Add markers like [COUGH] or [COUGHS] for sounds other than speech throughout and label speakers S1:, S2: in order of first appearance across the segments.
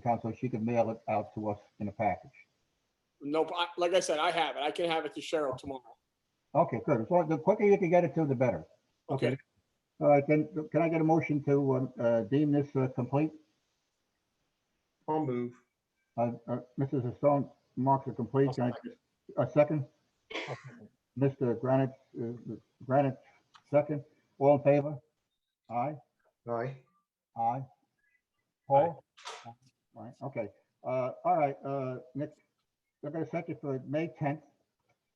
S1: account so she can mail it out to us in a package.
S2: Nope, I- like I said, I have it. I can have it to Cheryl tomorrow.
S1: Okay, good. So the quicker you can get it to, the better.
S2: Okay,
S1: All right, then, can I get a motion to uh, uh, deem this uh, complete?
S3: I'll move.
S1: Uh, uh, Mrs. Stone marks it complete. Can I- A second? Mr. Granite, uh, Granite, second. All in favor? Aye,
S3: Aye.
S1: aye. Paul? All right, okay. Uh, All right, uh, Nick, we're going to set it for May 10th.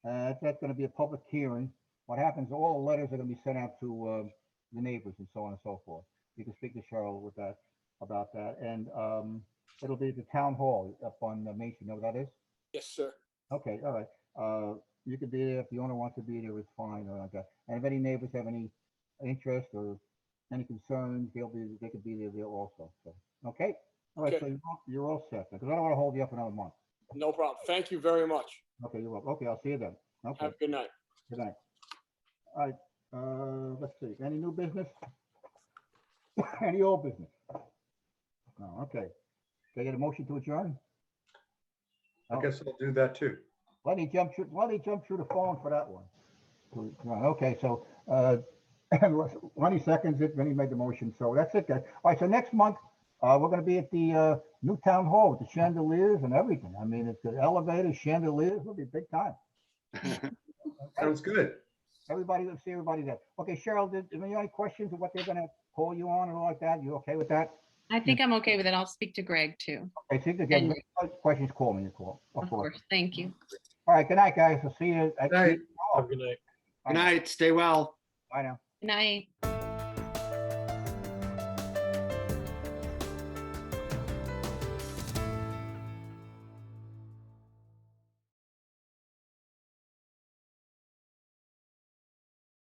S1: Uh, That's going to be a public hearing. What happens, all the letters are going to be sent out to uh, the neighbors and so on and so forth. You can speak to Cheryl with that, about that. And um, it'll be at the town hall up on uh, Main Street. You know where that is?
S2: yes, sir.
S1: Okay, all right. Uh, you could be there if the owner wants to be there, it's fine or like that. And if any neighbors have any interest or any concerns, they'll be, they could be there there also, so, okay? All right,
S2: Okay.
S1: so you're all- you're all set, because I don't want to hold you up another month.
S2: No problem. Thank you very much.
S1: Okay, you're welcome. Okay, I'll see you then. Okay,
S2: Have a good night.
S1: good night. All right, uh, let's see, any new business? [COUGHS] Any old business? No, okay. Can I get a motion to adjourn?
S3: I
S1: Oh.
S3: guess I'll do that too.
S1: Let me jump through, let me jump through the phone for that one. Right, Okay, so, uh, [CLEARS THROAT] Lenny seconds it, Vinnie made the motion, so that's it, guys. All right, so next month, uh, we're gonna be at the, uh, new town hall with the chandeliers and everything. I mean, it's the elevators, chandeliers, it'll be big time.
S3: Sounds good.
S1: Everybody, let's see everybody there. Okay, Cheryl, did, are there any questions of what they're gonna call you on and all like that? You okay with that?
S4: I think I'm okay with it. I'll speak to Greg too,
S1: I think again,
S4: Yeah.
S1: questions, call me, you call,
S4: of
S1: of course.
S4: course. Thank you.
S1: All right, good night, guys. I'll see you. at-
S3: Night.
S1: Oh,
S2: good night.
S5: Good night. Stay well.
S1: Bye now.
S4: Good night.